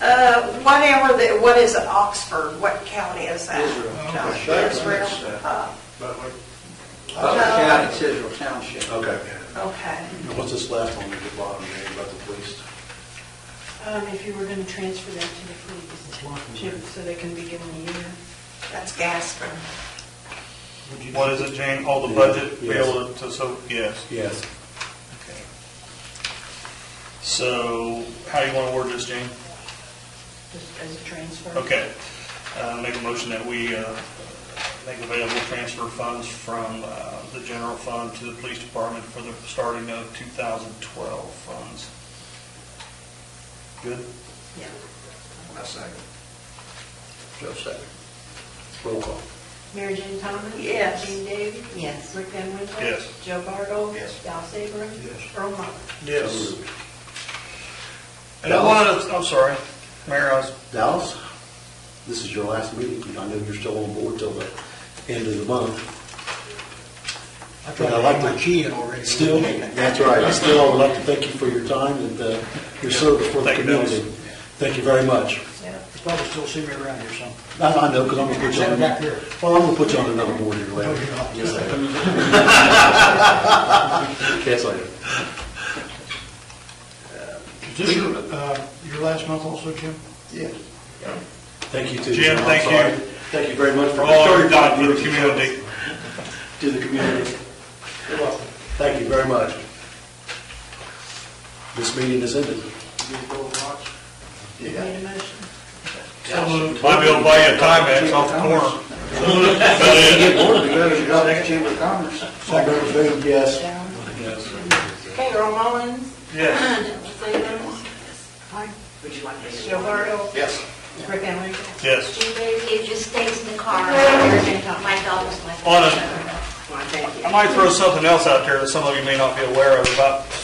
Uh, whatever the, what is Oxford? What county is that? Israel. No, Israel. Israel? Uh, But what, Butler County, it's Israel Township. Okay. Okay. And What's this last one at the bottom there about the police? Um, if you were gonna transfer that to the police, to- so they can be given a year. That's Gasper. what is it, Jane? All the budget, be Yes. able to, so, yes. Yes. Okay. So how do you want to word this, Jane? just as a transfer. Okay. Uh, Make a motion that we uh, make available transfer funds from uh, the general fund to the police department for the starting of 2012 funds. Good? Yeah. My second. Joe second. Roll call. Mary Jane Thomas? Yes. Gene Davey? Yes. Rick Van Winkle? Yes. Joe Bartle? Yes. Al Sabrin? Yes. Earl Muller? Yes. And I wanted to, I'm sorry, Mayor, I was, Dallas, this is your last meeting. I know you're still on board till the end of the month. I tried to have my key in already. Still, that's right. I still would like to thank you for your time and uh, your service for the Thank you, Dallas. community. Thank you very much. Yeah. You Probably still see me around here some. I I know, because I'm going to put you on, Back here. well, I'm going to put you on another board here No, later. you're not. Yes, I am. Yes, I am. Is this your, uh, your last month also, Jim? Yes. Thank you too. Jim, I'm thank sorry. you. Thank you very much for for all all you've your done for the community. To the community. You're welcome. Thank you very much. This meeting is ended. Made a motion. Might be able to buy you a time X off the corner. Chamber of Commerce. Secretary Boone, yes. Down. Okay, Earl Mullins, Yes. Al Sabrin, Aye. Joe Bartle, Yes. Rick Van Winkle. Yes. It just stays in the car. My dog was like. On a- I might throw something else out there that some of you may not be aware of. About